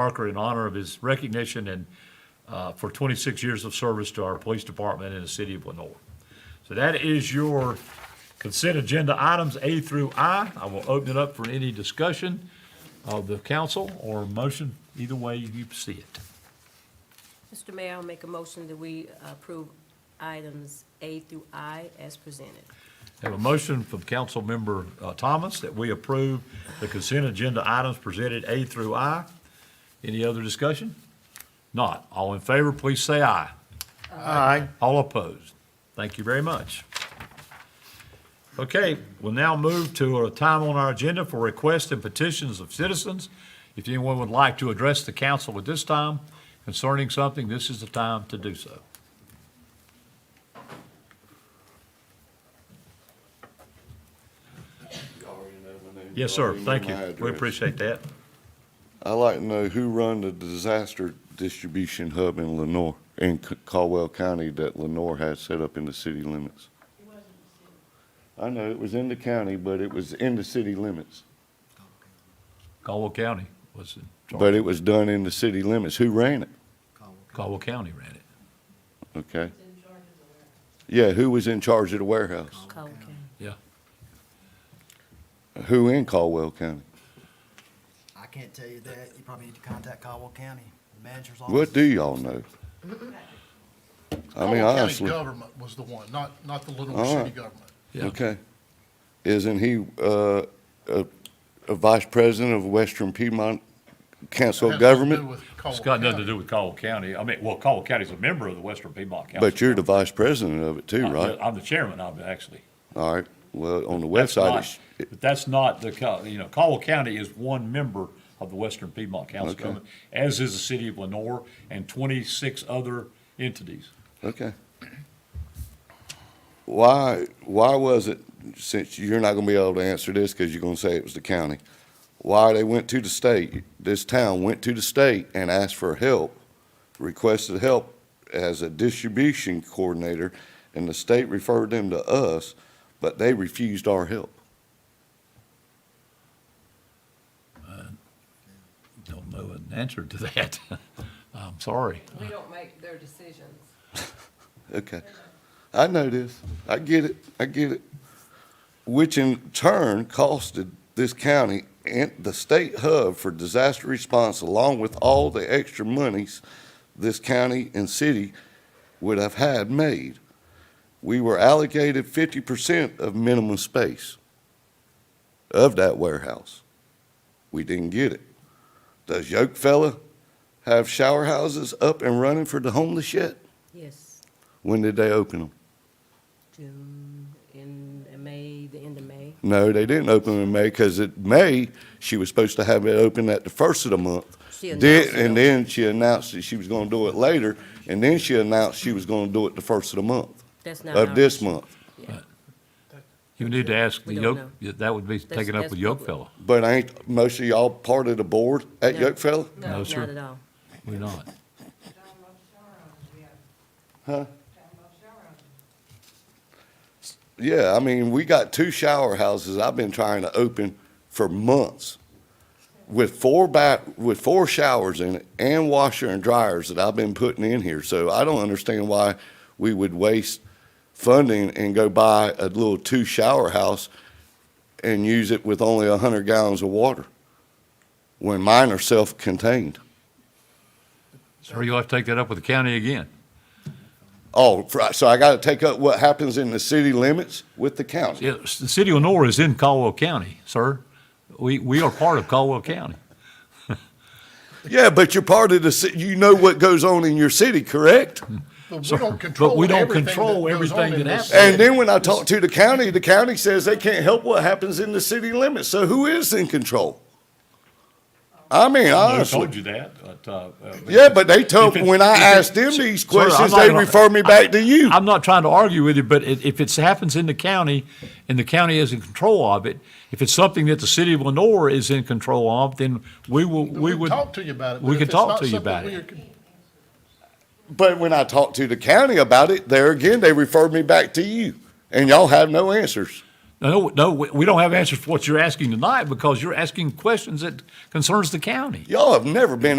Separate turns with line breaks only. marker in honor of his recognition and uh, for 26 years of service to our police department in the city of Lenore. So that is your consent agenda items A through I. I will open it up for any discussion of the council or motion, either way you see it.
Mr. Mayor, I'll make a motion that we approve items A through I as presented.
Have a motion from Councilmember uh, Thomas that we approve the consent agenda items presented A through I. Any other discussion? Not. All in favor, please say aye.
Aye.
All opposed? Thank you very much. Okay, we'll now move to a time on our agenda for requests and petitions of citizens. If anyone would like to address the council at this time concerning something, this is the time to do so. Yes, sir. Thank you. We appreciate that.
I'd like to know who run the disaster distribution hub in Lenore, in C- Caldwell County that Lenore had set up in the city limits. I know, it was in the county, but it was in the city limits.
Caldwell County was in
But
charge.
it was done in the city limits. Who ran it?
Caldwell County ran it.
Okay. Yeah, who was in charge of the warehouse?
Cole County.
Yeah.
Who in Caldwell County?
I can't tell you that. You probably need to contact Caldwell County, the manager's office.
What do y'all know? I mean,
Caldwell County
honestly.
Government was the one, not, not the Little
All right.
City government.
Yeah.
Okay. Isn't he uh, a a vice president of Western Piedmont Council
It
of
has nothing to do
Government?
with Caldwell
It's got nothing to
County.
do with Caldwell County. I mean, well, Caldwell County's a member of the Western Piedmont Council.
But you're the vice president of it too,
I'm the-
right?
I'm the chairman of it, actually.
All right, well, on the
That's
website,
not-
it's- it-
But that's not the, co- you know, Caldwell County is one member of the Western Piedmont Council, of
Okay.
Government, as is the city of Lenore and 26 other entities.
okay. Why, why was it, since you're not gonna be able to answer this because you're gonna say it was the county, why they went to the state, this town went to the state and asked for help, requested help as a distribution coordinator, and the state referred them to us, but they refused our help.
Don't know an answer to that. I'm sorry.
We don't make their decisions.
Okay. I know this. I get it. I get it. Which in turn costed this county and the state hub for disaster response, along with all the extra monies this county and city would have had made. We were allocated fifty percent of minimum space of that warehouse. We didn't get it. Does Yoke fella have shower houses up and running for the homeless yet?
Yes,
When did they open them?
June, in May, the end of May.
No, they didn't open them in May because in May, she was supposed to have it open at the first of the month.
She announced
Then,
it.
and then she announced that she was gonna do it later, and then she announced she was gonna do it the first of the month,
That's not
of
our
this
issue.
month.
Yeah.
You need to ask the
We don't
Yoke, that would be
That's-
taken up
that's
with
public.
Yokefellow.
But ain't most of y'all part of the board at
No.
Yokefella?
No, sir.
Not at all.
We're not.
Yeah, I mean, we got two shower houses I've been trying to open for months with four bat, with four showers in it and washer and dryers that I've been putting in here. So I don't understand why we would waste funding and go buy a little two shower house and use it with only a hundred gallons of water when mine are self-contained.
Sir, you'll have to take that up with the county again.
Oh, fr- so I gotta take up what happens in the city limits with the county?
Yeah, s- the city of Lenore is in Caldwell County, sir. We, we are part of Caldwell County.
Yeah, but you're part of the, ci- you know what goes on in your city, correct?
But
Sir, but
we don't control
we don't
everything
control
that goes on
everything
in
that happens.
this city.
And then when I talk to the county, the county says they can't help what happens in the city limits. So who is in control? I mean,
I
honestly.
told you that, but, uh, uh,
Yeah, but they told,
If it-
when I
if it-
asked them these
Sir, I'm
questions,
not
they
gonna-
refer me back to you.
I'm not trying to argue with you, but i- if it happens in the county and the county is in control of it, if it's something that the city of Lenore is in control of, then we will, we
can
would.
talk to you about it. but
We
if
could
it's
talk
not
to you
something
about it.
we are con-
But when I talk to the county about it, there again, they refer me back to you. And y'all have no answers.
No, no, we we don't have answers for what you're asking tonight because you're asking questions that concerns the county.
Y'all have never been